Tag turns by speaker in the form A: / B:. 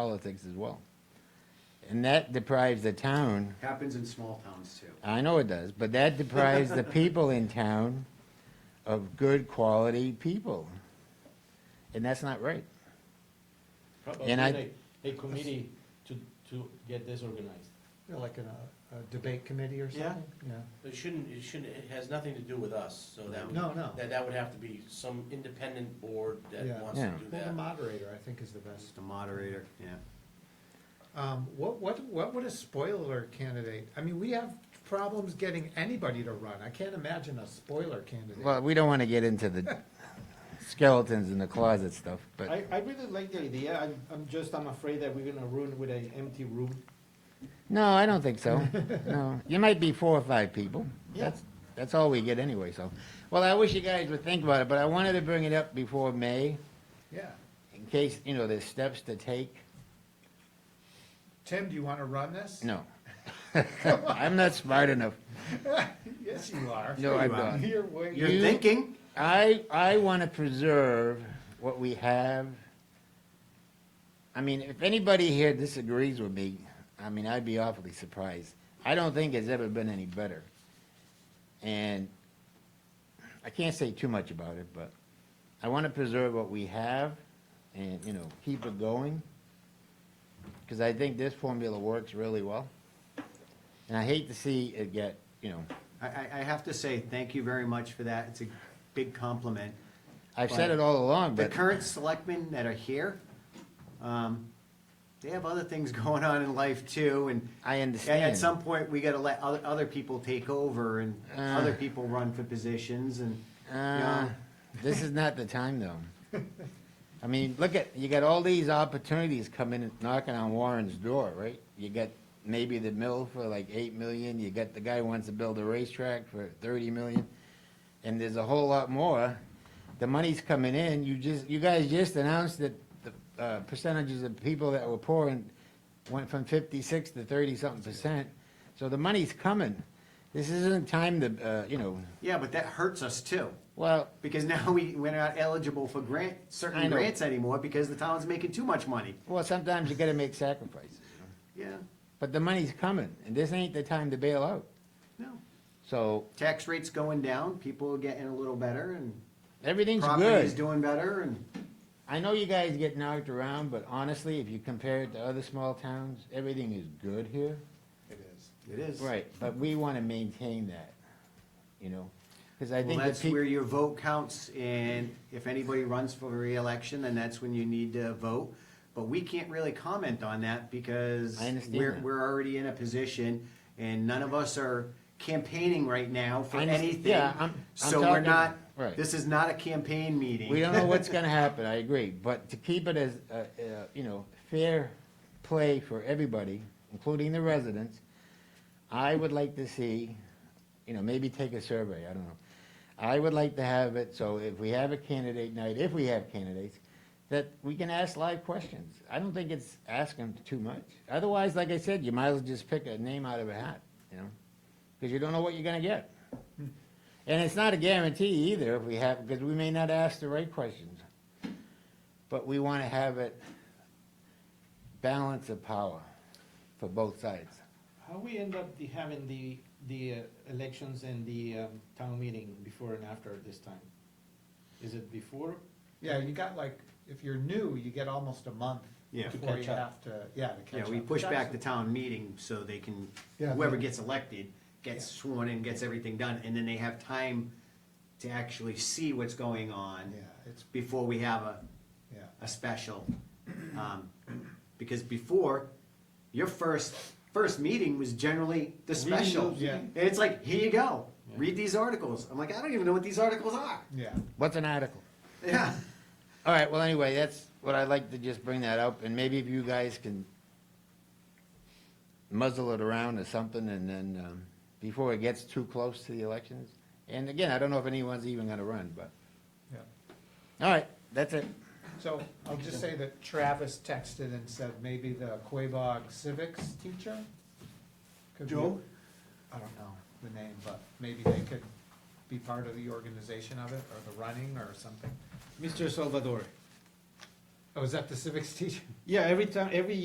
A: politics as well. And that deprives the town,
B: Happens in small towns too.
A: I know it does, but that deprives the people in town of good quality people. And that's not right.
C: Probably
A: And I-
C: a, a committee to, to get this organized.
D: Yeah, Like in a, a debate committee or
C: Yeah.
D: something? Yeah.
C: It shouldn't, it shouldn't, it has nothing to do with us, so that would.
D: No, no.
C: That, that would have to be some independent board that
D: Yeah.
C: wants to
A: Yeah.
C: do
D: Well, the
C: that.
D: moderator, I think, is the best.
B: Just a moderator, yeah.
D: Um, what, what, what would a spoiler candidate, I mean, we have problems getting anybody to run. I can't imagine a
A: Well,
D: spoiler candidate.
A: we don't want to get into the skeletons in the closet stuff, but
E: I, I really like the idea, I'm, I'm just, I'm afraid that we're gonna ruin with an empty room.
A: no, I don't think so. No, you might be four or five people. That's, that's all we get anyway, so. Well, I wish you guys would think about it, but I wanted to bring it up before May
D: Yeah.
A: in case, you know, there's steps to take.
D: Tim, do you want to run this?
A: No. I'm not smart enough.
D: Yes, you are.
A: No, I'm not.
D: Here, wait.
B: You're
A: You-
B: thinking,
A: I, I want to preserve what we have. I mean, if anybody here disagrees with me, I mean, I'd be awfully surprised. I don't think it's ever been any better. And I can't say too much about it, but I want to preserve what we have and, you know, keep it going. Because I think this formula works really well. And I hate to see it get, you know,
B: I, I, I have to say, thank you very much for that, it's a big compliment.
A: I've said it all along,
B: The
A: but.
B: current selectmen that are here, um, they have other things going on in life too, and
A: I
B: at-
A: understand.
B: at some point, we gotta let other, other people take over and
A: Uh.
B: other people run for positions and,
A: Uh,
B: Yeah.
A: this is not the time, though. I mean, look at, you got all these opportunities coming, and knocking on Warren's door, right? You got maybe the mill for like eight million, you got the guy who wants to build a racetrack for thirty million, and there's a whole lot more. The money's coming in, you just, you guys just announced that the uh, percentages of people that were poor and went from fifty-six to thirty-something percent. So the money's coming. This isn't time to, uh, you know,
B: yeah, but that hurts us too.
A: well,
B: Because now we, we're not eligible for grant,
A: I
B: certain
A: know.
B: grants anymore because the town's making too much money.
A: Well, sometimes you gotta make sacrifices, you know?
B: Yeah,
A: but the money's coming, and this ain't the time to bail out.
B: no.
A: So,
B: Tax rates going down, people are getting a little better and
A: everything's
B: property's
A: good.
B: doing better and,
A: I know you guys get knocked around, but honestly, if you compare it to other small towns, everything is good here.
D: It is.
B: it is.
A: Right, but we wanna maintain that, you know, cause I
B: Well,
A: think the
B: that's where
A: people,
B: your vote counts and if anybody runs for reelection, then that's when you need to vote. But we can't really comment on that because
A: I understand
B: we're,
A: that.
B: we're already in a position and none of us are campaigning right now for
A: I understand-
B: anything.
A: yeah, I'm- I'm
B: So we're
A: talking-
B: not,
A: right.
B: this is not a campaign meeting.
A: we don't know what's gonna happen, I agree, but to keep it as, uh, uh, you know, fair play for everybody, including the residents, I would like to see, you know, maybe take a survey, I don't know. I would like to have it, so if we have a candidate night, if we have candidates, that we can ask live questions. I don't think it's asking too much. Otherwise, like I said, you might as well just pick a name out of a hat, you know? Because you don't know what you're gonna get. And it's not a guarantee either if we have, because we may not ask the right questions. But we wanna have it balance of power for both sides.
E: How we end up the, having the, the uh, elections and the, um, town meeting before and after this time? Is it before?
D: Yeah, you got like, if you're new, you get almost a month
B: Yeah. To
D: before you
E: catch up.
D: have to, yeah, to catch
B: Yeah,
D: up.
B: we push
D: That's-
B: back the town meeting so they can,
D: Yeah,
B: whoever
D: they-
B: gets elected, gets sworn in, gets everything done, and then they have time to actually see what's going on
D: Yeah, it's,
B: before we have a,
D: yeah.
B: a special. Um, Because before, your first, first meeting was generally the
C: Reading
B: special.
C: those,
D: yeah.
B: And it's like, here you go, read these articles. I'm like, I don't even know what these articles are.
D: Yeah,
A: What's an article?
B: Yeah.
A: All right, well, anyway, that's what I'd like to just bring that up, and maybe if you guys can muzzle it around or something, and then, um, before it gets too close to the elections. And again, I don't know if anyone's even gonna run, but,
D: yeah.
A: all right, that's it.
D: So I'll just say that Travis texted and said maybe the Quabog civics teacher? could be-
B: Joe?
D: I don't know the name, but maybe they could be part of the organization of it, or the running, or something.
E: Mr. Salvador,
F: Oh, is that the civics teacher?
D: Yeah, every time, every